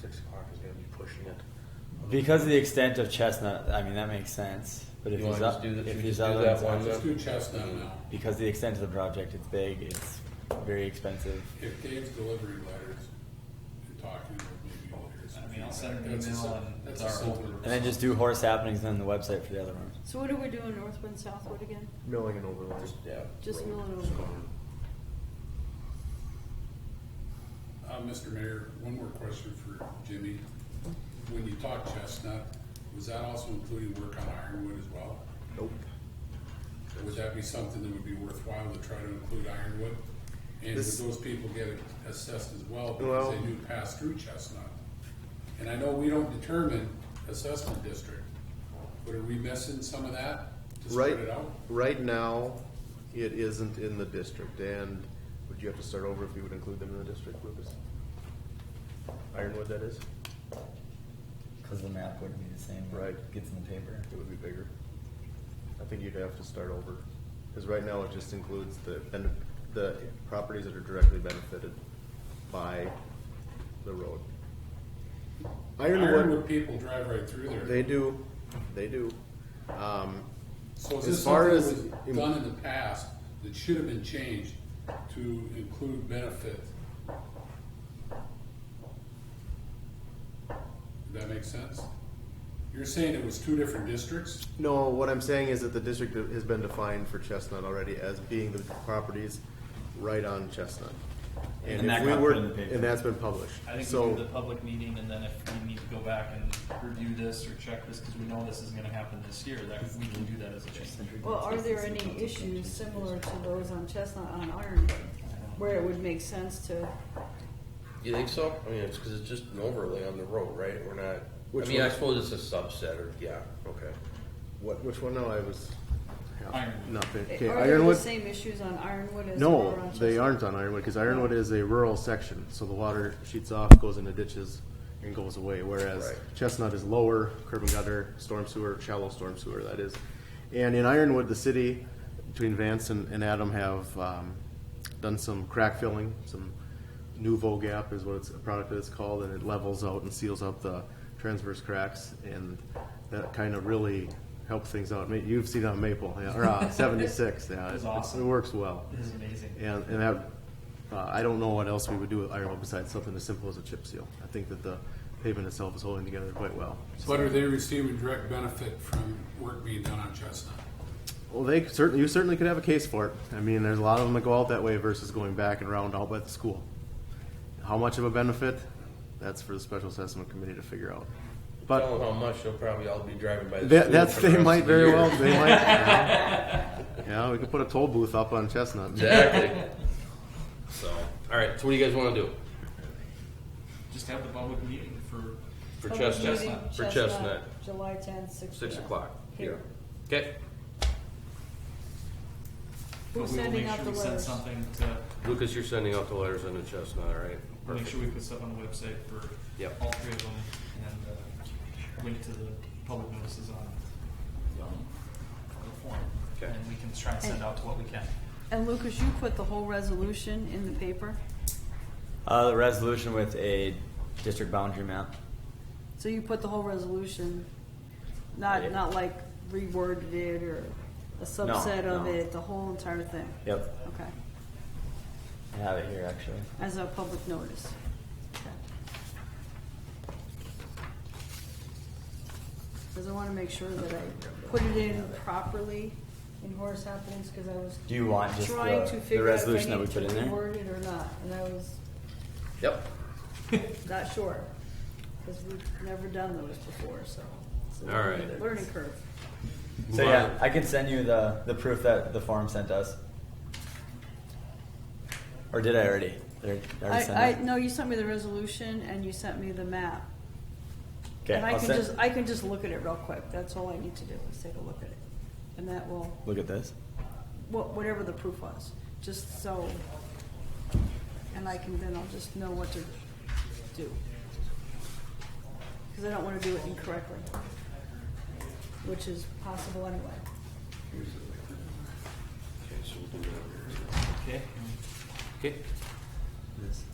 six o'clock is gonna be pushing it. Because of the extent of Chestnut, I mean, that makes sense. But if You he's wanna up, just do the- should if we he's just do other, that it's- one? Let's do Chestnut now. because of the extent of the project, it's big, it's very expensive. If Dave's delivery letters, you're talking, maybe letters. I mean, I'll send him an That's a email sil- and that's a it's our silver old- And then just do horse happenings and then the website for the other one. So what are we doing, Northwood, Southwood again? Milling and overlaying. Yeah. Just road. milling overlay. Uh, Mr. Mayor, one more question for Jimmy. When you talk chestnut, was that also including work on ironwood as well? Nope. Would that be something that would be worthwhile to try to include ironwood? And would This- those people get assessed as well Well- because they do pass through chestnut? And I know we don't determine assessment district, but are we missing some of that to Right, spread it out? right now, it isn't in the district, and would you have to start over if you would include them in the district, Lucas? Ironwood, that is? Because the map wouldn't be the same. when it Right. Gets in the paper. It would be bigger. I think you'd have to start over, because right now it just includes the, ben the properties that are directly benefited by the road. Ironwood Ironwood, people drive right through there. they do, they do. Um, So is As this far something as- that was done in the past that should have been changed to include benefit? Does that make sense? You're saying it was two different districts? No, what I'm saying is that the district has been defined for Chestnut already as being the properties right on Chestnut. And that if we got were, put in the paper. And that's been published. I think we do So, the public meeting, and then if we need to go back and review this or check this, because we know this is gonna happen this year, that we can do that as a change. Well, are there any issues similar to those on Chestnut on Ironwood, where it would make sense to, You think so? I mean, it's because it's just an overlay on the road, right? We're not. Which I mean, I one? suppose it's a subset, or yeah, okay. what, which one? No, I was. half- Ironwood. Not, fin- are okay, there the Ironwood. same issues on Ironwood as there are on No, Chestnut? they aren't on Ironwood, because Ironwood is a rural section, so the water sheets off, goes into ditches and goes away, whereas Right. Chestnut is lower, curb and gutter, storm sewer, shallow storm sewer, that is. And in Ironwood, the city, between Vance and, and Adam have, um, done some crack filling, some nouveau gap is what it's, a product that it's called, and it levels out and seals up the transverse cracks, and that kind of really helps things out. Ma- You've seen it on Maple, yeah, or uh, seventy-six, yeah. It's it- awesome. It works well. This is amazing. And, and that, uh, I don't know what else we would do with iron besides something as simple as a chip seal. I think that the pavement itself is holding together quite well. But are they receiving direct benefit from work being done on Chestnut? Well, they could certainly, you certainly could have a case for it. I mean, there's a lot of them that go out that way versus going back and round out by the school. How much of a benefit? That's for the special assessment committee to figure out. Tell But them how much they'll probably all be driving by. The that, school that's, for the they rest might of the very year. well, they might. Yeah, we could put a toll booth up on Chestnut. Exactly. so, all right. So, what do you guys want to do Just have the public meeting for, for Public Chestnut? meeting, For Chestnut, July tenth, six. six p.m. o'clock. Here. Okay. but Who's we will sending make out sure the we send letters? something to, Lucas, you're sending out the letters on the Chestnut, all right? make Perfect. sure we put stuff on the website for Yep. all three of them, and, uh, link to the public notices on, um, the form. Okay. And we can try and send out to what we can. And Lucas, you put the whole resolution in the paper, Uh, the resolution with a district boundary map. so you put the whole resolution, not, Yeah. not like reworded it or a subset of no. it, the whole entire thing? Yep. Okay, I have it here actually. as a public notice. Because I want to make sure that I put it in properly in horse happenings, because I was Do you want just trying to the, the figure out if resolution I that we need to put in there? reword it or not, and I was Yep. not sure. Because we've never done those before, so. it's a All right. Learning curve. So yeah, I can send you the, the proof that the form sent us. Or did I already? Did I already send I, it? I, no, you sent me the resolution and you sent me the map. Okay, And I I'll can send- just, I can just look at it real quick. That's all I need to do, is take a look at it. And that will, Look at this. wha- whatever the proof was, just so. And I can, then I'll just know what to do. Because I don't want to do it incorrectly, which is possible anyway. Okay, so we'll do that. Okay? Okay. This.